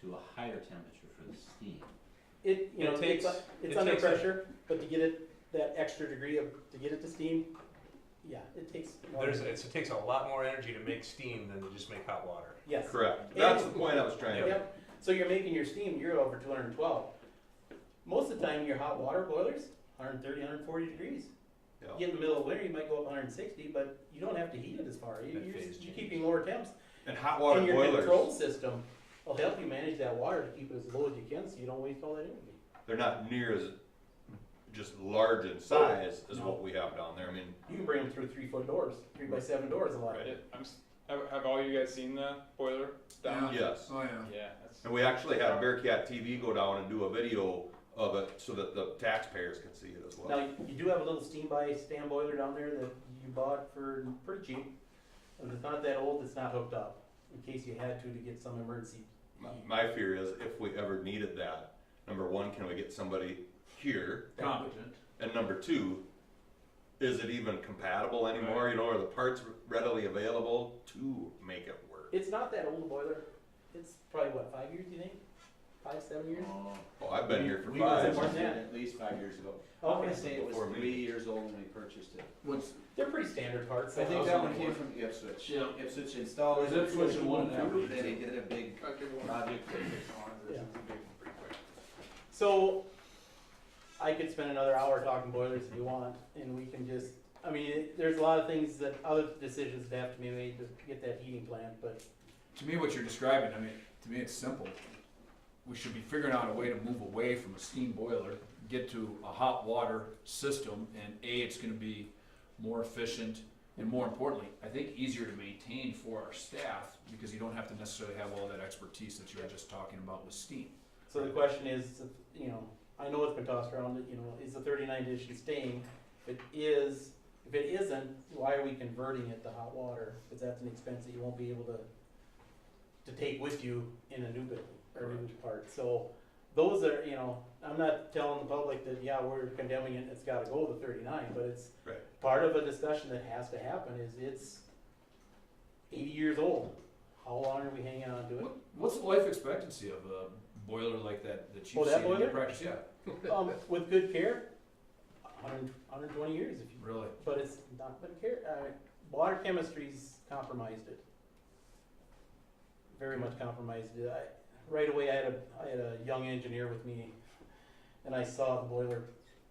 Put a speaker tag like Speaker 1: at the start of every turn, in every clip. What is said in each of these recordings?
Speaker 1: to a higher temperature for the steam.
Speaker 2: It, you
Speaker 3: It
Speaker 2: know,
Speaker 3: takes-
Speaker 2: it's, uh, it's
Speaker 3: it
Speaker 2: under
Speaker 3: takes a-
Speaker 2: pressure, but to get it, that extra degree of, to get it to steam, yeah, it takes.
Speaker 3: There's, it's, it takes a lot more energy to make steam than to just make hot water.
Speaker 2: Yes.
Speaker 4: Correct. That's the point I was trying to make.
Speaker 2: Yep, so you're making your steam, you're over two hundred and twelve. Most of the time, your hot water boilers, 130, 140 degrees.
Speaker 4: Yeah.
Speaker 2: You get in the middle of winter, you might go up hundred and sixty, but you don't have to heat it as far, You-
Speaker 3: That
Speaker 2: you're,
Speaker 3: phase
Speaker 2: just- you're
Speaker 3: change.
Speaker 2: keeping lower temps.
Speaker 4: And hot
Speaker 2: And
Speaker 4: water
Speaker 2: your control
Speaker 4: boilers,
Speaker 2: system will help you manage that water to keep it as low as you can, so you don't waste all that energy.
Speaker 4: they're not near as just large in size as
Speaker 2: No.
Speaker 4: what we have down there. I mean,
Speaker 2: You can bring them through three foot doors, three by seven doors a lot.
Speaker 4: Right.
Speaker 5: It- I'm, s- have, have all you guys seen the boiler down?
Speaker 4: yes.
Speaker 6: Oh, yeah.
Speaker 5: Yeah, that's,
Speaker 4: And we actually had Bearcat TV go down and do a video of it so that the taxpayers can see it as well.
Speaker 2: Now, you do have a little steam by stand boiler down there that you bought for pretty cheap. And it's not that old, it's not hooked up, in case you had to to get some emergency.
Speaker 4: My, my fear is if we ever needed that, number one, can we get somebody here?
Speaker 5: competent.
Speaker 4: And number two, is it even compatible anymore? You know, are the parts readily available to make it work?
Speaker 2: It's not that old a boiler, it's probably what, five years, you think? Five, seven years?
Speaker 4: Oh, I've been here for
Speaker 1: We
Speaker 4: five.
Speaker 1: were
Speaker 2: More than
Speaker 1: interested
Speaker 2: that.
Speaker 1: at least five years ago. I'm
Speaker 2: Okay,
Speaker 1: gonna say it was
Speaker 4: Before me.
Speaker 1: three years old when we purchased it.
Speaker 6: What's,
Speaker 2: they're pretty standard parts.
Speaker 1: I think
Speaker 2: so-
Speaker 1: that one came from Ipswich.
Speaker 6: Yeah.
Speaker 1: Ipswich installed it.
Speaker 6: Was Ipswich the one that-
Speaker 1: and Then they did a big project.
Speaker 2: Yeah. So, I could spend another hour talking boilers if you want, and we can just, I mean, it- there's a lot of things that, other decisions that have to be made to get that heating plan, but
Speaker 6: to me, what you're describing, I mean, to me, it's simple. We should be figuring out a way to move away from a steam boiler, get to a hot water system, and A, it's gonna be more efficient, and more importantly, I think easier to maintain for our staff, because you don't have to necessarily have all that expertise that you were just talking about with steam.
Speaker 2: So the question is, you know, I know it's been tossed around, you know, is the thirty-nine edition staying? If it is, if it isn't, why are we converting it to hot water? Because that's an expense that you won't be able to, to take with you in a new building or a new part. So those are, you know, I'm not telling the public that, yeah, we're condemning it, it's gotta go to thirty-nine, but it's
Speaker 4: Right.
Speaker 2: part of a discussion that has to happen is it's eighty years old. How long are we hanging on to it?
Speaker 6: What, what's the life expectancy of a boiler like that, that
Speaker 2: Oh,
Speaker 6: you've
Speaker 2: that
Speaker 6: seen in your
Speaker 2: boiler?
Speaker 6: practice? Yeah,
Speaker 2: Um, with good care, 100 120 years if you,
Speaker 6: really.
Speaker 2: but it's not good care, uh, water chemistry's compromised it. Very much compromised it, I, right away I had a, I had a young engineer with me, and I saw the boiler.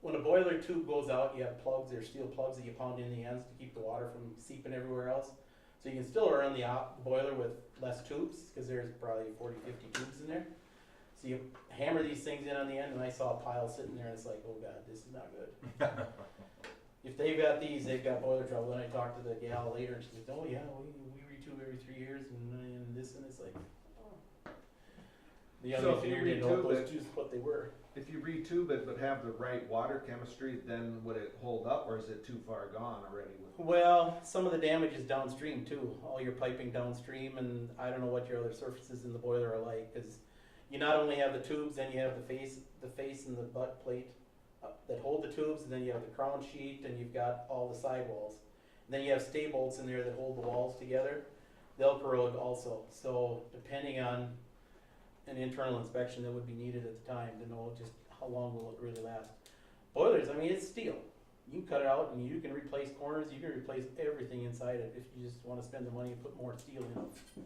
Speaker 2: When a boiler tube goes out, you have plugs, they're steel plugs that you pound in the ends to keep the water from seeping everywhere else. So you can still run the op, boiler with less tubes, cause there's probably 40, 50 tubes in there. So you hammer these things in on the end, and I saw a pile sitting there, and it's like, oh god, this is not good. if they've got these, they've got boiler trouble. And I talked to the gal later, and she said, oh yeah, we, we retube every three years, and, and this, and it's like, oh. The
Speaker 7: So
Speaker 2: other
Speaker 7: if
Speaker 2: engineer
Speaker 7: you
Speaker 2: didn't know
Speaker 7: retube
Speaker 2: those
Speaker 7: it-
Speaker 2: tubes, what they were.
Speaker 7: If you retube it but have the right water chemistry, then would it hold up or is it too far gone already? With
Speaker 2: Well, some of the damage is downstream too. All your piping downstream, and I don't know what your other surfaces in the boiler are like, because you not only have the tubes, then you have the face, the face and the butt plate uh, that hold the tubes, and then you have the crown sheet, and you've got all the sidewalls. And then you have stay bolts in there that hold the walls together. They'll corrode also. So depending on an internal inspection that would be needed at the time to know just how long will it really last. Boilers, I mean, it's steel you can cut it out and you can replace corners, you can replace everything inside it if you just wanna spend the money and put more steel in it.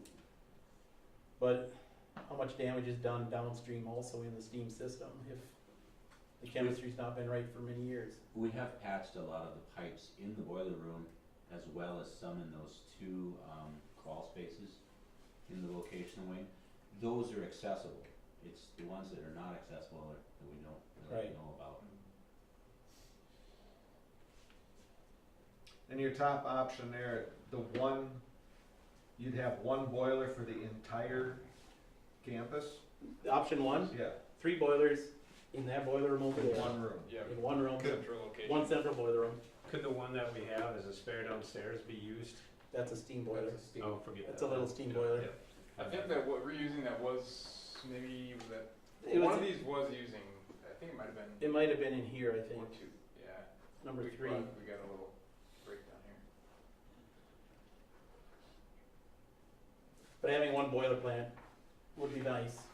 Speaker 2: But how much damage is done downstream also in the steam system if the chemistry's not been right for many years?
Speaker 1: We have patched a lot of the pipes in the boiler room as well as some in those two, um, crawl spaces in the vocational wing. Those are accessible. It's the ones that are not accessible that that we don't really
Speaker 2: Right.
Speaker 1: know about.
Speaker 7: and your top option there, the one, you'd have one boiler for the entire campus?
Speaker 2: Option one,
Speaker 7: Yeah,
Speaker 2: three boilers in that boiler room over
Speaker 7: in
Speaker 2: there,
Speaker 7: one room.
Speaker 5: Yeah,
Speaker 2: in one room,
Speaker 5: central location.
Speaker 2: one central boiler room,
Speaker 8: Could the one that we have as a spare downstairs be used?
Speaker 2: that's a steam boiler.
Speaker 8: Oh, forget that.
Speaker 2: That's a little steam boiler.
Speaker 5: I think that what we're using that was maybe that
Speaker 2: It
Speaker 5: one
Speaker 2: was,
Speaker 5: of these was using. I think it might have been
Speaker 2: it might have been in here, I think,
Speaker 5: one two. Yeah,
Speaker 2: number
Speaker 5: we,
Speaker 2: three.
Speaker 5: We got a little breakdown here.
Speaker 2: But having one boiler plant would be nice.